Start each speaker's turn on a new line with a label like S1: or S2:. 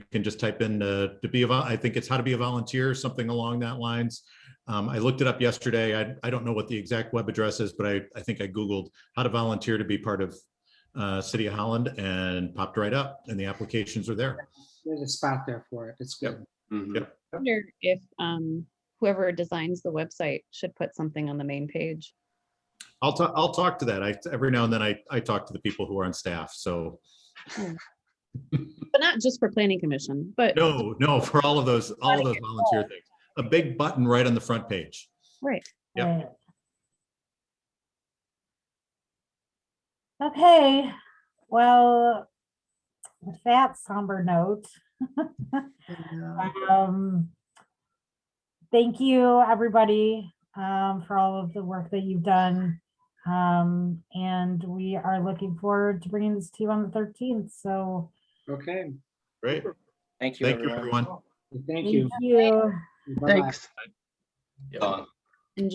S1: can just type in uh, to be a, vol- I think it's how to be a volunteer, something along that lines. Um, I looked it up yesterday. I, I don't know what the exact web address is, but I, I think I Googled how to volunteer to be part of uh, City of Holland and popped right up and the applications are there.
S2: There's a spot there for it. It's
S1: Yep.
S2: good.
S3: Mhm.
S4: wonder if um, whoever designs the website should put something on the main page.
S1: I'll talk, I'll talk to that. I, every now and then I, I talk to the people who are on staff. So
S4: But not just for planning commission, but,
S1: no, no, for all of those, all of those volunteer things, a big button right on the front page.
S4: right,
S1: Yep.
S5: Right. Okay, well, with that somber note, um, thank you, everybody, um, for all of the work that you've done. Um, and we are looking forward to bringing this to you on the thirteenth, so
S2: Okay,
S1: Great.
S6: Thank you.
S1: Thank you, everyone.
S2: thank
S5: thank
S2: you.
S5: you.
S2: Bye-bye.
S7: Thanks.
S3: Done.